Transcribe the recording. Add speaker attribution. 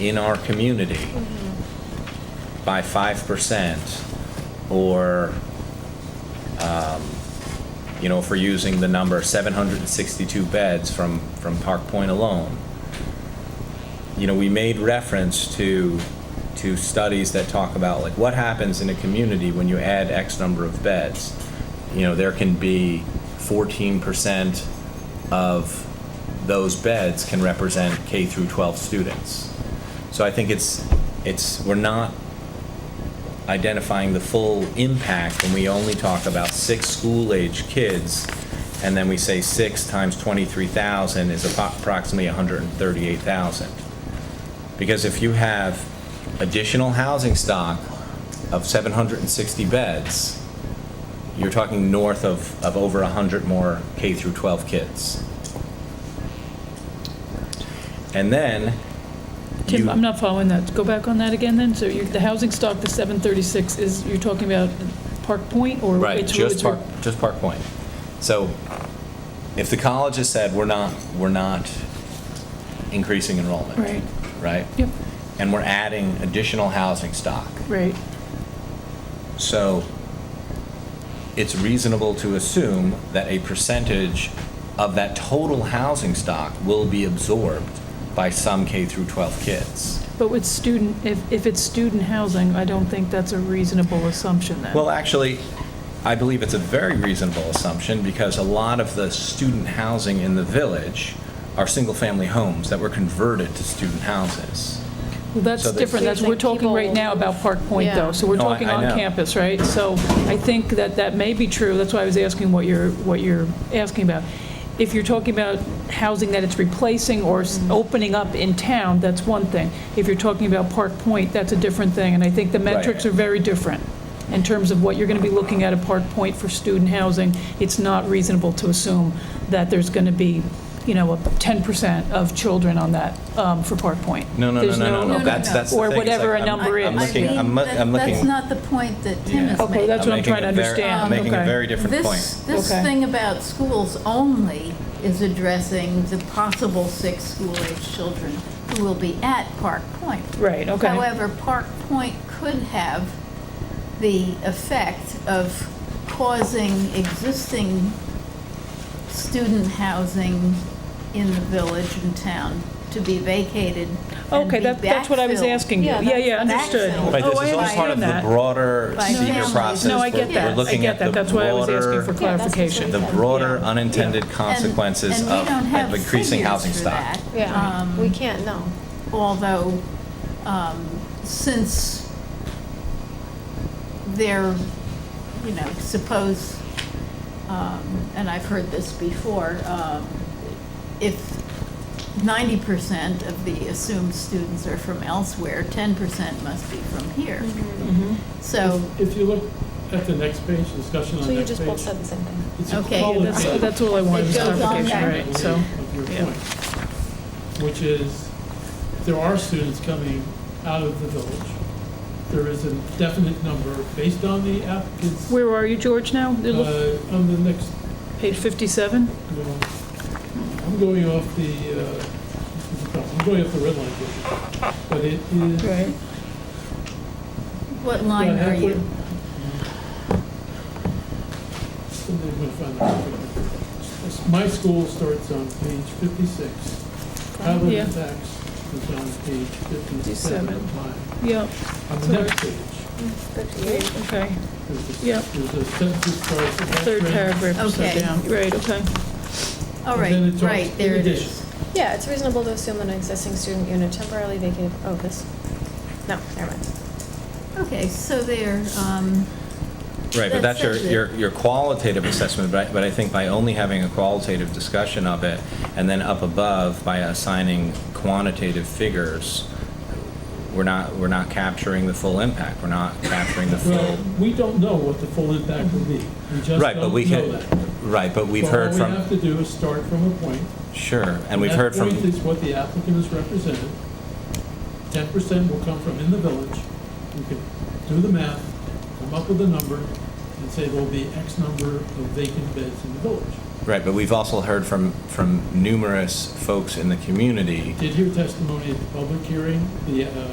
Speaker 1: in our community by 5%, or, um, you know, if we're using the number 762 beds from, from Park Point alone, you know, we made reference to, to studies that talk about, like, what happens in a community when you add X number of beds? You know, there can be 14% of those beds can represent K through 12 students. So I think it's, it's, we're not identifying the full impact when we only talk about six school-age kids, and then we say six times 23,000 is appro- approximately 138,000. Because if you have additional housing stock of 760 beds, you're talking north of, of over 100 more K through 12 kids. And then.
Speaker 2: Tim,
Speaker 1: you-
Speaker 2: I'm not following that. Go back on that again then. So you, the housing stock, the 736, is, you're talking about Park Point or?
Speaker 1: Right,
Speaker 2: it's-
Speaker 1: just
Speaker 2: it's-
Speaker 1: Park, just Park Point. So if the college has said, we're not, we're not increasing enrollment.
Speaker 2: Right.
Speaker 1: Right?
Speaker 2: Yep,
Speaker 1: And we're adding additional housing stock.
Speaker 2: right.
Speaker 1: So it's reasonable to assume that a percentage of that total housing stock will be absorbed by some K through 12 kids.
Speaker 2: But with student, if, if it's student housing, I don't think that's a reasonable assumption then.
Speaker 1: Well, actually, I believe it's a very reasonable assumption because a lot of the student housing in the village are single-family homes that were converted to student houses.
Speaker 2: Well,
Speaker 1: so
Speaker 2: that's
Speaker 1: that-
Speaker 2: different. That's, we're talking right now about Park Point though.
Speaker 3: Yeah.
Speaker 2: So we're
Speaker 1: No, I-
Speaker 2: talking
Speaker 1: I
Speaker 2: on
Speaker 1: know.
Speaker 2: campus, right? So I think that that may be true. That's why I was asking what you're, what you're asking about. If you're talking about housing that it's replacing or s- opening up in town, that's one thing. If you're talking about Park Point, that's a different thing. And I think the metrics are very different in terms of what you're going to be looking at at Park Point for student housing. It's not reasonable to assume that there's going to be, you know, a 10% of children on that um, for Park Point.
Speaker 1: No, no, no,
Speaker 2: There's
Speaker 1: no, no,
Speaker 3: no,
Speaker 1: no, that's,
Speaker 3: no.
Speaker 1: that's the
Speaker 2: Or
Speaker 1: thing. It's
Speaker 2: whatever
Speaker 1: like
Speaker 2: a
Speaker 1: I'm-
Speaker 2: number
Speaker 1: I'm
Speaker 2: is.
Speaker 1: looking, I'm,
Speaker 3: I
Speaker 1: loo-
Speaker 3: mean,
Speaker 1: I'm
Speaker 3: that-
Speaker 1: looking.
Speaker 3: That's not the point that Tim
Speaker 1: Yeah.
Speaker 3: is
Speaker 2: Okay,
Speaker 3: making.
Speaker 2: that's what I'm
Speaker 1: making
Speaker 2: trying to
Speaker 1: a very-
Speaker 2: understand.
Speaker 1: I'm making a
Speaker 2: Okay.
Speaker 1: very different point.
Speaker 3: This, this
Speaker 2: Okay.
Speaker 3: thing about schools only is addressing the possible six school-age children who will be at Park Point.
Speaker 2: Right, okay.
Speaker 3: However, Park Point could have the effect of causing existing student housing in the village and town to be vacated and
Speaker 2: Okay,
Speaker 3: be
Speaker 2: that- that's what I was
Speaker 3: backfilled.
Speaker 2: asking you.
Speaker 4: Yeah,
Speaker 2: Yeah, yeah,
Speaker 3: that's-
Speaker 2: understood.
Speaker 3: Backfill.
Speaker 1: Right,
Speaker 2: Oh,
Speaker 1: this
Speaker 2: I
Speaker 1: is all part of
Speaker 2: understand
Speaker 1: the
Speaker 2: that.
Speaker 1: broader
Speaker 3: By
Speaker 1: senior
Speaker 3: families.
Speaker 1: process.
Speaker 2: No, I
Speaker 1: We're-
Speaker 2: get that.
Speaker 1: We're
Speaker 2: I
Speaker 1: looking
Speaker 2: get
Speaker 1: at the
Speaker 2: that. That's why I was asking for
Speaker 1: broader,
Speaker 4: Yeah, that's
Speaker 2: clarification.
Speaker 1: the
Speaker 4: what
Speaker 1: broader
Speaker 2: Yeah.
Speaker 1: unintended consequences
Speaker 3: And-
Speaker 1: of
Speaker 3: and we don't have
Speaker 1: of increasing
Speaker 3: figures
Speaker 1: housing
Speaker 3: for
Speaker 1: stock.
Speaker 3: that.
Speaker 4: Yeah,
Speaker 3: Um,
Speaker 4: we can't, no.
Speaker 3: although um, since they're, you know, suppose, um, and I've heard this before, um, if 90% of the assumed students are from elsewhere, 10% must be from here.
Speaker 4: Mm-hmm.
Speaker 2: Mm-hmm.
Speaker 1: Mm-hmm.
Speaker 3: So,
Speaker 5: If you look at the next page, discussion on
Speaker 4: So
Speaker 5: the
Speaker 4: you
Speaker 5: next page.
Speaker 4: just both said the same thing.
Speaker 5: it's a
Speaker 3: Okay,
Speaker 5: column
Speaker 2: That's,
Speaker 5: down
Speaker 2: that's all I wanted, was
Speaker 3: It goes on
Speaker 2: clarification,
Speaker 3: back.
Speaker 2: right, so,
Speaker 5: of your
Speaker 2: yeah.
Speaker 5: point, Which is, there are students coming out of the village. There is a definite number based on the applicants,
Speaker 2: where are you, George, now? It look-
Speaker 5: uh, on the next,
Speaker 2: Page 57?
Speaker 5: well, I'm going off the, uh, I'm going off the red line here. But it is.
Speaker 2: Right.
Speaker 3: what line
Speaker 5: Yeah,
Speaker 3: are you?
Speaker 5: halfway- Somebody will find that. My school starts on page 56. Travel
Speaker 2: Yeah.
Speaker 5: and tax is on page 57 of mine.
Speaker 2: Yep,
Speaker 5: On the
Speaker 2: Sorry.
Speaker 5: next page,
Speaker 2: okay,
Speaker 5: there's
Speaker 2: Yep.
Speaker 5: a- there's a census price. of that
Speaker 2: third
Speaker 5: grant,
Speaker 2: paragraph or so
Speaker 3: Okay.
Speaker 2: down, right, okay.
Speaker 3: All
Speaker 5: and then it
Speaker 3: right,
Speaker 5: talks
Speaker 3: right,
Speaker 5: in
Speaker 3: there it
Speaker 5: addition.
Speaker 3: is.
Speaker 4: Yeah, it's reasonable to assume that an existing student unit temporarily vacated, oh, this, no, never mind.
Speaker 3: Okay, so there, um,
Speaker 1: Right, but
Speaker 3: That
Speaker 1: that's your,
Speaker 3: says it.
Speaker 1: your, your qualitative assessment, but I, but I think by only having a qualitative discussion of it, and then up above, by assigning quantitative figures, we're not, we're not capturing the full impact, we're not capturing the full,
Speaker 5: Well, we don't know what the full impact will be. We just don't know
Speaker 1: right, but we can,
Speaker 5: that.
Speaker 1: right, but we've
Speaker 5: But
Speaker 1: heard
Speaker 5: All we have
Speaker 1: from,
Speaker 5: to do is start from a point,
Speaker 1: sure, and we've heard
Speaker 5: That
Speaker 1: from,
Speaker 5: point is what the applicant has represented. Ten percent will come from in the village. You can do the math, come up with a number, and say there'll be X number of vacant beds in the village.
Speaker 1: Right, but we've also heard from, from numerous folks in the community
Speaker 5: Did hear testimony at the public hearing, the uh,